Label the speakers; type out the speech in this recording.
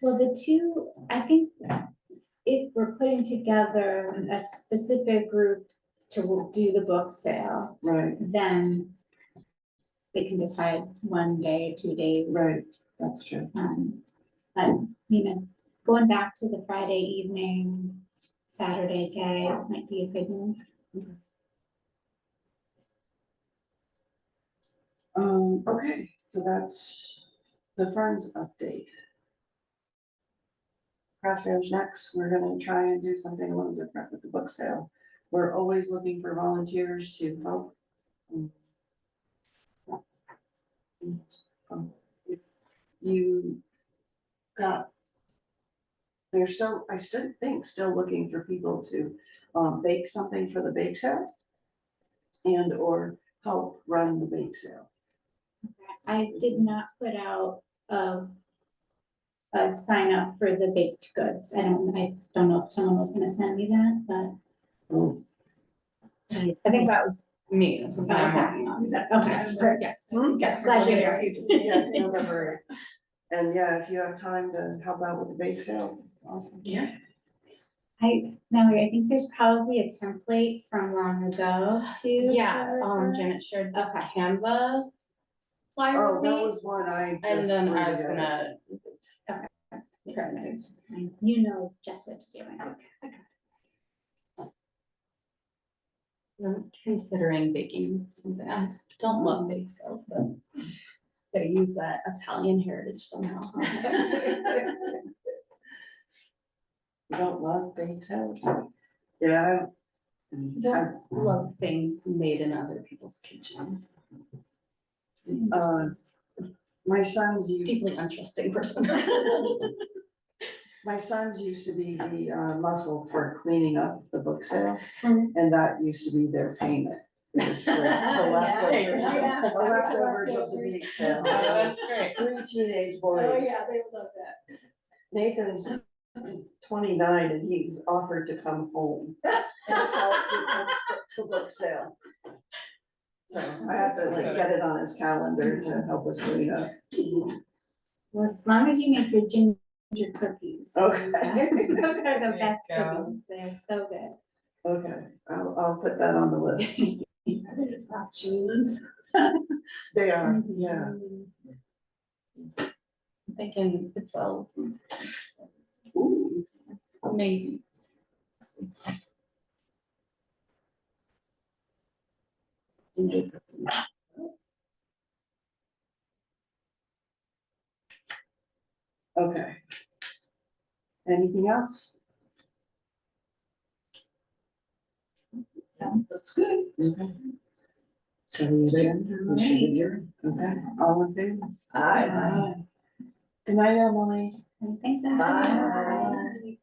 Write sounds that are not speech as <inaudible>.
Speaker 1: Well, the two, I think if we're putting together a specific group to do the book sale,
Speaker 2: Right,
Speaker 1: then they can decide one day, two days.
Speaker 2: Right. that's true.
Speaker 1: Um, but, you know, going back to the Friday evening, Saturday day might be a good move.
Speaker 2: Um, okay, so that's the Ferns update. Craft fair's next, we're gonna try and do something a little different with the book sale. We're always looking for volunteers to help. um, um, if You got. They're still, I still think, still looking for people to um bake something for the bake sale. And or help run the bake sale.
Speaker 1: I did not put out a a sign up for the baked goods. I don't, I don't know if someone was gonna send me that, but
Speaker 2: Oh,
Speaker 3: I think that was me, that's something I'm working on.
Speaker 1: Is that- okay, great.
Speaker 3: Yes.
Speaker 2: Hmm?
Speaker 3: Yes.
Speaker 1: Glad you're here.
Speaker 2: Yeah, November. And yeah, if you have time to help out with the bake sale, it's awesome.
Speaker 3: Yeah.
Speaker 1: I, Mallory, I think there's probably a template from long ago too. to
Speaker 3: Yeah, um,
Speaker 1: refer.
Speaker 3: Janet shared the
Speaker 1: Okay.
Speaker 3: Canva flyer
Speaker 2: Oh,
Speaker 3: with
Speaker 2: that
Speaker 3: me,
Speaker 2: was one I just.
Speaker 3: and then I was
Speaker 2: redid.
Speaker 3: gonna.
Speaker 1: Yes, I- You know just what to do. I know.
Speaker 3: I'm Considering baking something, I don't love bake sales, but gotta use that Italian heritage <laughs> somehow.
Speaker 2: <laughs> You don't love bake sales? Yeah. I- I-
Speaker 3: Don't love things made in other people's kitchens.
Speaker 2: Uh, My sons, you,
Speaker 3: Deeply untrusting person. <laughs>
Speaker 2: my sons used to be the uh, muscle for cleaning up the book sale,
Speaker 1: Mhm.
Speaker 2: and that used to be their payment. It was The the
Speaker 3: Mm-hmm. <laughs> Yeah.
Speaker 2: leftovers,
Speaker 3: Yeah.
Speaker 2: the leftovers of the bake
Speaker 3: <laughs> Oh,
Speaker 2: sale.
Speaker 3: That's great.
Speaker 2: three teenage boys. Oh, yeah, they would love that. Nathan's twenty-nine and he's offered to come home to <laughs> help with the, the book sale. So I have to like get it on his calendar to help us clean up.
Speaker 1: Well, as long as you make your ginger cookies.
Speaker 2: Oh. Okay,
Speaker 1: <laughs> Those are
Speaker 3: There
Speaker 1: the
Speaker 3: you
Speaker 1: best
Speaker 3: go.
Speaker 1: cookies. They're so good.
Speaker 2: okay, I'll, I'll put that on the list.
Speaker 3: It's not cheese.
Speaker 2: They are,
Speaker 1: <laughs>
Speaker 2: yeah,
Speaker 3: I'm Thinking it sells.
Speaker 2: Ooh,
Speaker 3: Maybe.
Speaker 2: okay. Anything else?
Speaker 3: That's good.
Speaker 2: Okay. So we adjourn, we should adjourn, okay, all in favor? Aye. Good night, Emily.
Speaker 1: Thanks, Adam.
Speaker 2: Bye.